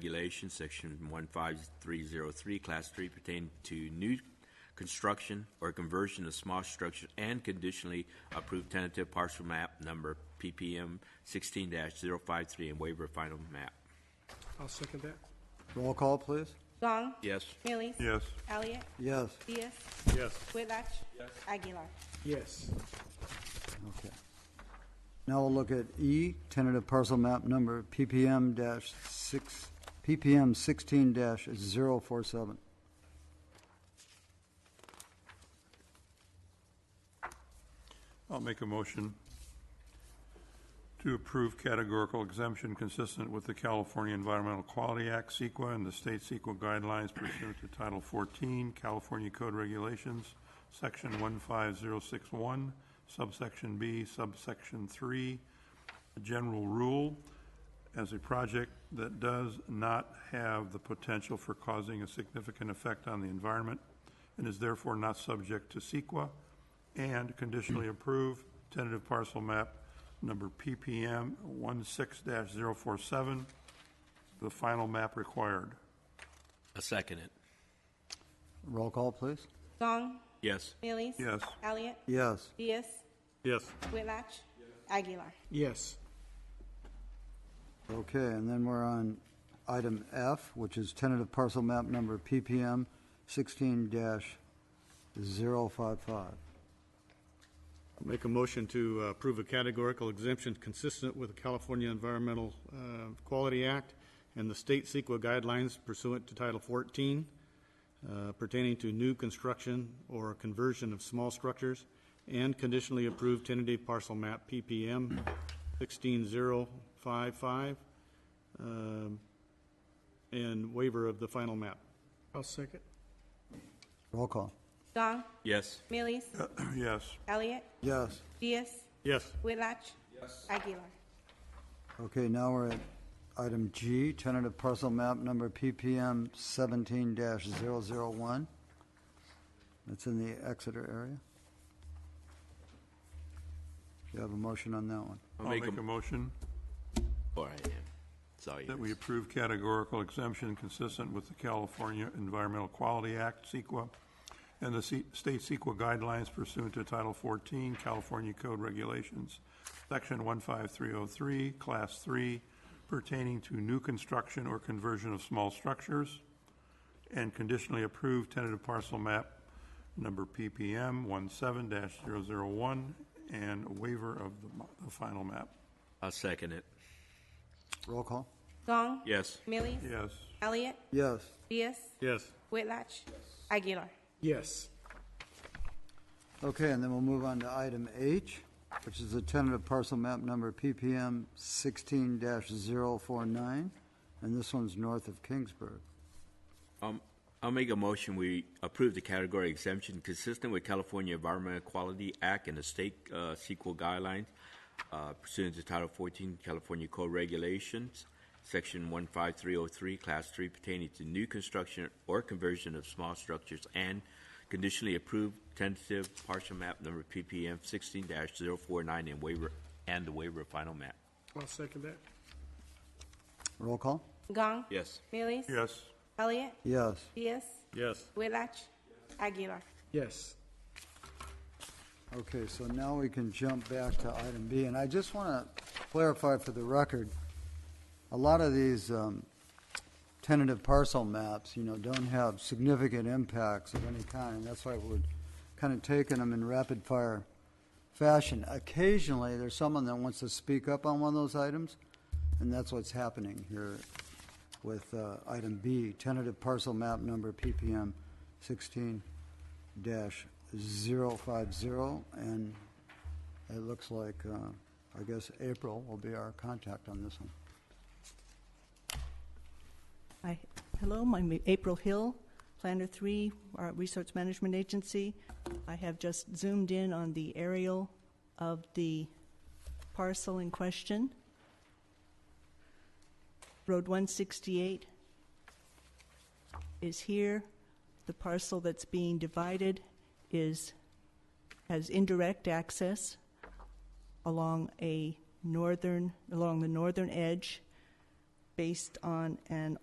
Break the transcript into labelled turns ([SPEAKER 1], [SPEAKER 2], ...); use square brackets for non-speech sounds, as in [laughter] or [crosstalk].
[SPEAKER 1] Regulation, Section 15303, Class 3, pertaining to new construction or conversion of small structures and conditionally approved tentative parcel map number PPM 16-053 and waiver of final map.
[SPEAKER 2] I'll second that.
[SPEAKER 3] Roll call, please.
[SPEAKER 4] Gong.
[SPEAKER 1] Yes.
[SPEAKER 4] Millies.
[SPEAKER 5] Yes.
[SPEAKER 4] Elliot.
[SPEAKER 3] Yes,
[SPEAKER 4] Diaz.
[SPEAKER 5] Yes.
[SPEAKER 4] Whitlatch. Aguilar.
[SPEAKER 2] Yes.
[SPEAKER 3] okay. Now we'll look at E, tentative parcel map number PPM dash six, PPM sixteen dash zero four seven.
[SPEAKER 5] I'll make a motion to approve categorical exemption consistent with the California Environmental Quality Act, CEQA, and the state CEQA guidelines pursuant to Title 14, California Code Regulations, Section 15061, subsection B, subsection 3, a general rule, as a project that does not have the potential for causing a significant effect on the environment and is therefore not subject to CEQA, and [clears throat] conditionally approve tentative parcel map number PPM 16-047, the final map required. [clears throat]
[SPEAKER 1] I second it.
[SPEAKER 3] Roll call, please.
[SPEAKER 4] Gong.
[SPEAKER 1] Yes.
[SPEAKER 4] Millies.
[SPEAKER 5] Yes.
[SPEAKER 4] Elliot.
[SPEAKER 3] Yes,
[SPEAKER 4] Diaz.
[SPEAKER 5] Yes.
[SPEAKER 4] Whitlatch. Aguilar.
[SPEAKER 2] Yes.
[SPEAKER 3] okay, and then we're on item F, which is tentative parcel map number PPM sixteen dash zero five five.
[SPEAKER 6] Make a motion to uh, approve a categorical exemption consistent with the California Environmental uh, Quality Act and the state CEQA guidelines pursuant to Title 14 uh, pertaining to new construction or conversion of small structures and conditionally approved tentative parcel map PPM 16055 um, and waiver of the final map.
[SPEAKER 2] I'll second.
[SPEAKER 3] Roll call.
[SPEAKER 4] Gong.
[SPEAKER 1] Yes.
[SPEAKER 4] Millies.
[SPEAKER 5] Yes.
[SPEAKER 4] Elliot.
[SPEAKER 3] Yes,
[SPEAKER 4] Diaz.
[SPEAKER 6] Yes.
[SPEAKER 4] Whitlatch. Aguilar.
[SPEAKER 3] okay, now we're at item G, tentative parcel map number PPM seventeen dash zero zero one. That's in the Exeter area. You have a motion on that one.
[SPEAKER 5] I'll make a motion
[SPEAKER 1] Or I am. Sorry.
[SPEAKER 5] that we approve categorical exemption consistent with the California Environmental Quality Act, CEQA, and the C- state CEQA guidelines pursuant to Title 14, California Code Regulations, Section 15303, Class 3, pertaining to new construction or conversion of small structures, and conditionally approved tentative parcel map number PPM 17-001, and waiver of the mo- the final map.
[SPEAKER 1] I second it.
[SPEAKER 3] Roll call.
[SPEAKER 4] Gong.
[SPEAKER 1] Yes.
[SPEAKER 4] Millies.
[SPEAKER 5] Yes.
[SPEAKER 4] Elliot.
[SPEAKER 3] Yes,
[SPEAKER 4] Diaz.
[SPEAKER 6] Yes.
[SPEAKER 4] Whitlatch. Aguilar.
[SPEAKER 2] Yes.
[SPEAKER 3] okay, and then we'll move on to item H, which is the tentative parcel map number PPM sixteen 49 and this one's north of Kingsburg.
[SPEAKER 1] Um, I'll make a motion, we approve the category exemption consistent with California Environmental Quality Act and the state uh, CEQA guidelines uh, pursuant to Title 14 California Code Regulations, Section 15303, Class 3 pertaining to new construction or conversion of small structures and conditionally approved tentative partial map number PPM 16-049 and waiver, and the waiver of final map.
[SPEAKER 2] I'll second that.
[SPEAKER 3] Roll call?
[SPEAKER 4] Gong.
[SPEAKER 1] Yes.
[SPEAKER 4] Millies.
[SPEAKER 5] Yes.
[SPEAKER 4] Elliot.
[SPEAKER 3] Yes,
[SPEAKER 4] Diaz.
[SPEAKER 6] Yes.
[SPEAKER 4] Whitlatch. Aguilar.
[SPEAKER 2] Yes.
[SPEAKER 3] okay, so now we can jump back to item B, and I just want to clarify for the record, a lot of these um, tentative parcel maps, you know, don't have significant impacts of any kind, and that's why we're kind of taking them in rapid fire fashion. Occasionally, there's someone that wants to speak up on one of those items, and that's what's happening here with uh, item B, tentative parcel map number PPM 16-050, and it looks like, uh, I guess, April will be our contact on this one.
[SPEAKER 7] Hi, hello, I'm April Hill, Planner 3, our Research Management Agency. I have just zoomed in on the aerial of the parcel in question. Road 168 is here. The parcel that's being divided is, has indirect access along a northern, along the northern edge based on an